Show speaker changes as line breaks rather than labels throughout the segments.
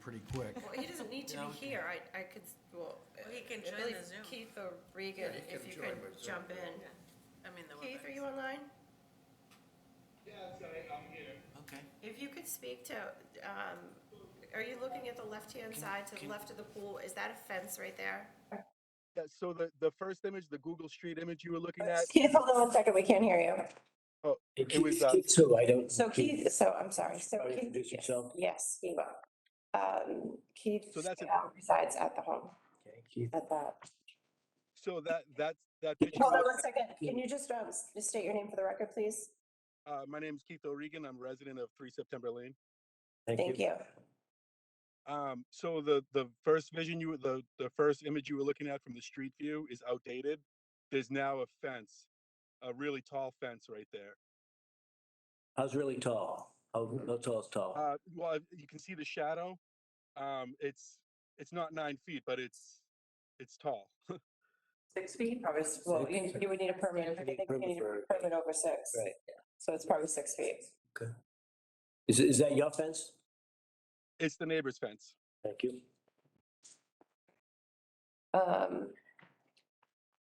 pretty quick.
Well, he doesn't need to
Yeah,
be
we can-
here, I, I could, well.
Well, he can
at
join the
least
Zoom.
Keith or Regan,
Yeah, he
if
can
you
join
could
by Zoom,
jump
yeah.
in.
I mean, the
Keith, are you
WebEx.
online?
Yeah, sorry, I'm here.
Okay.
If you could speak to, um, are you looking at the left-hand
Can-
side to the
can-
left of the pool? Is that a fence right there?
Yeah, so the, the first image, the Google Street image you were looking at,
Keith, hold on one second, we can't hear you.
It was, uh,
So I don't.
So Keith, so I'm sorry, so
Sorry,
Keith.
introduce yourself.
Yes, he will. Um, Keith
So that's it.
uh, resides at the home,
Okay, Keith.
at that.
so that, that, that picture. you
Hold on
look-
one second, can you just, um, s- just state your name for the record, please?
Uh, my name's Keith O'Regan. I'm resident of Three September Lane.
Thank you.
Um, so the, the first vision you, were- the, the first image you were looking at from the street view is outdated. There's now a fence, a really tall fence right there.
I was really tall. How, how tall is tall?
Uh, well, you can see the shadow. Um, it's, it's not nine feet, but it's, it's tall.
Six feet, probably, s- well, you, you would need a permit, I
You need
think you
permit
need
for-
a permit over six.
Right.
So it's probably six feet.
Is, is that your fence?
It's the neighbor's fence.
Thank you.
Um,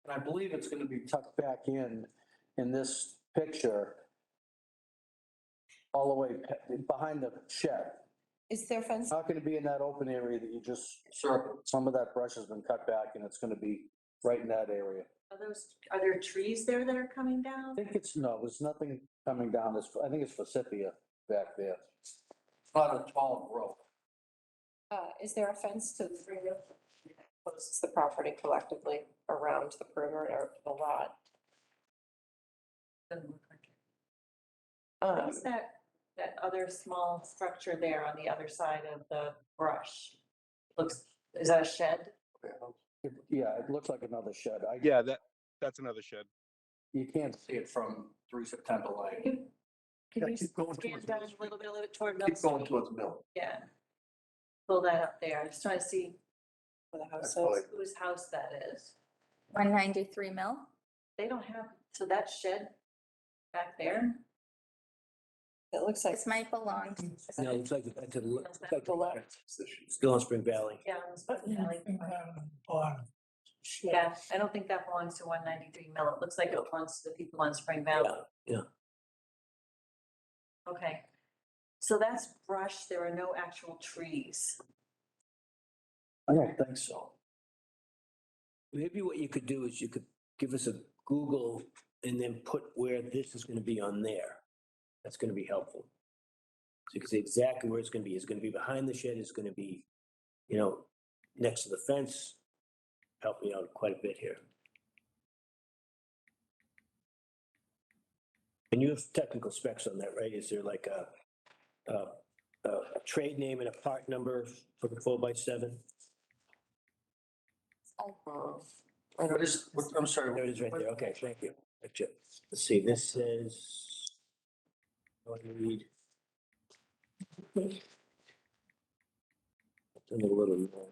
I believe it's going to be tucked back in, in this picture, all the way pe- behind the shed.
is there fence,
It's not going to be in that open area that you just circled. Some of that brush has been cut back and it's going to be right in that area.
Are those, are there trees there that are coming
I
down?
think it's, no, there's nothing coming down this, I think it's forsythia back there. Not a tall growth.
uh, is there a fence to the three real? Closes the property collectively around the perimeter of the lot.
Doesn't look like it.
Um,
What's that, that other small structure there on the other side of the brush? Looks, is that a shed?
Yeah, it looks like another shed. I,
Yeah, that, that's another shed.
you can't see it from three September
Can
Lane.
you- Can you stand down a little bit, a little bit toward Mill Street?
towards Mill.
Yeah. Pull that up there. I'm just trying to see
for the house,
probably-
whose house that is.
One ninety-three mill?
They don't have, so that shed back there?
it looks like.
This might belong.
No, it looks like, it to the le- it's like the
Left.
left. Still in Spring Valley.
Yeah, it was supposed to be like- Yeah, I don't think that belongs to one ninety-three Mill. It looks like it belongs to the people on Spring Valley.
yeah.
Okay, so that's brush. There are no actual trees.
I don't think so. Maybe what you could do is you could give us a Google and then put where this is gonna be on there. That's gonna be helpful. So you can see exactly where it's gonna be. It's gonna be behind the shed, it's gonna be, you know, next to the fence. Help me out quite a bit here. And you have technical specs on that, right? Is there like a, a, a a trade name and a part number for the four by seven? What is, what- I'm sorry. There it is right there. Okay, thank you. Gotcha. Let's see, this says. What do we need? It's in a little more.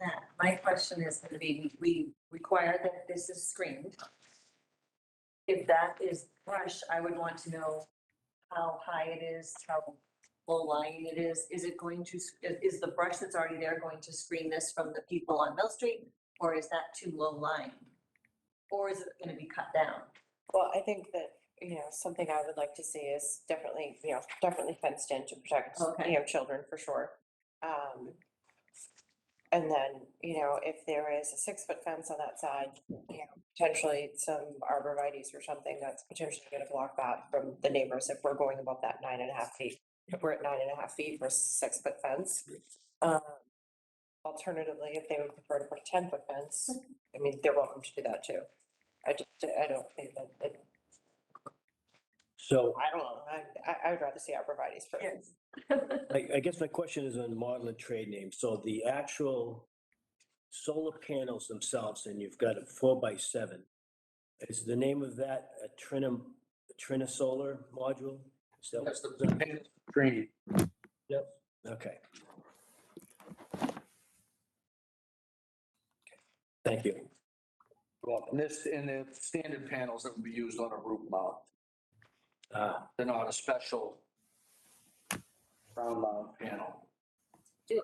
That, my question is gonna be, we require that this is screened. If that is brush, I would want to know how high it is, how low lying it is. Is it going to, s- i- is the brush that's already there going to screen this from the people on Mill Street? Or is that too low lying? Or is it gonna be cut down?
Well, I think that, you know, something I would like to see is definitely, you know, definitely fenced in to protect,
Okay.
you know, children for sure. Um, and then, you know, if there is a six-foot fence on that side, you know, potentially some arborvitae's or something that's potentially gonna block that from the neighbors if we're going above that nine and a half feet. If we're at nine and a half feet for a six-foot fence. Um, alternatively, if they would prefer to put a ten-foot fence, I mean, they're welcome to do that too. I just, I don't think that, it
So
I don't know, I, I, I would rather see arborvitae's for.
I, I guess my question is on model and trade name. So the actual solar panels themselves, and you've got a four by seven. Is the name of that a Trinum, a Trina solar module? Is that-
That's the, the panel screen.
Okay. Thank you.
Well, and this, and the standard panels that would be used on a roof mount.
Uh,
They're not a special round mount panel.